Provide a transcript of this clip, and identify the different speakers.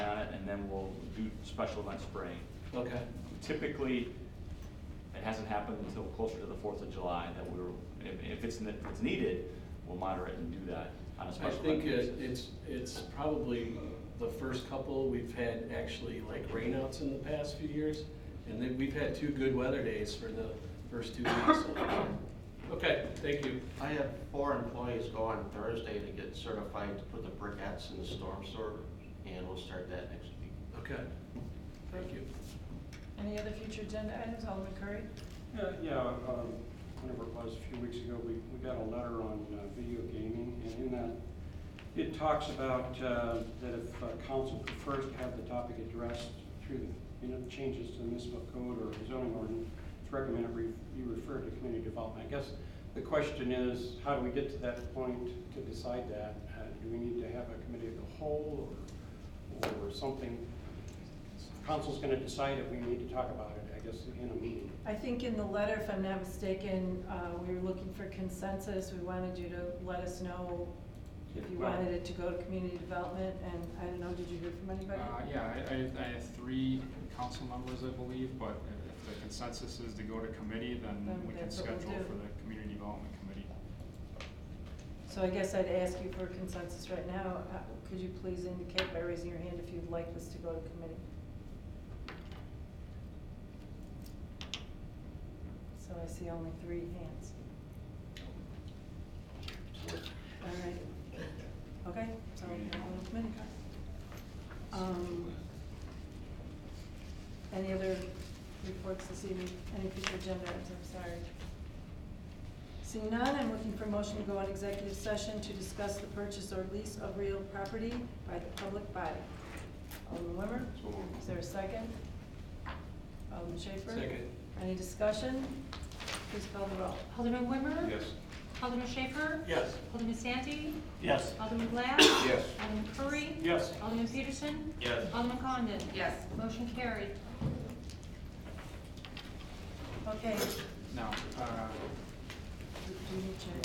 Speaker 1: then we'll do special event spraying.
Speaker 2: Okay,
Speaker 1: Typically, it hasn't happened until closer to the Fourth of July that we were, if, if it's, ne- if it's needed, we'll moderate and do that on a
Speaker 2: I
Speaker 1: special event
Speaker 2: think it-
Speaker 1: basis.
Speaker 2: it's, it's probably the first couple, we've had actually like rainouts in the past few years. And then we've had two good weather days for the first two weeks. Okay, thank you.
Speaker 3: I have four employees go on Thursday to get certified to put the briquettes in the storm sewer, and we'll start that next week.
Speaker 2: Okay, thank you.
Speaker 4: Any other future agenda items, Alderman Curry?
Speaker 5: Yeah, yeah, um, whenever it was, a few weeks ago, we, we got a letter on uh, video gaming, and in that, it talks about uh, that if uh, council prefers to have the topic addressed through, the you know, changes to the municipal code or zoning ordinance, it's recommended re- you refer to community development. I guess the question is, how do we get to that point to decide that? Uh, Do we need to have a committee of the whole, or, or something? Council's gonna decide if we need to talk about it, I guess, in a meeting.
Speaker 4: I think in the letter, if I'm not mistaken, uh, we were looking for consensus. We wanted you to let us know if you
Speaker 5: Well-
Speaker 4: wanted it to go to community development, and I don't know, did you hear from
Speaker 6: Uh,
Speaker 4: anybody?
Speaker 6: yeah, I, I, I have three council members, I believe, but if the consensus is to go to committee, then
Speaker 4: Then
Speaker 6: we can
Speaker 4: that's what we'll
Speaker 6: schedule
Speaker 4: do.
Speaker 6: for the community development committee.
Speaker 4: So I guess I'd ask you for consensus right now. Uh, Could you please indicate by raising your hand if you'd like this to go to committee? So I see only three hands. All right. Okay, so we have one committee. Um, Any other reports this evening? Any future agenda items? I'm sorry. Seeing none, I'm looking for a motion to go on executive session to discuss the purchase or lease of real property by the public body. Alderman Wimmer? Is there a second? Alderman Schaefer?
Speaker 2: Second.
Speaker 4: Any discussion? Please call the roll.
Speaker 7: Alderman Wimmer? Alderman Schaefer?
Speaker 2: Yes.
Speaker 7: Alderman Santi?
Speaker 5: Yes.
Speaker 7: Alderman Glad?
Speaker 3: Yes.
Speaker 7: Alderman Curry?
Speaker 5: Yes.
Speaker 7: Alderman Peterson?
Speaker 3: Yes.
Speaker 7: Alderman Condon? Yes. Motion carried.
Speaker 4: Okay.
Speaker 6: Now, uh,
Speaker 4: Do you need to-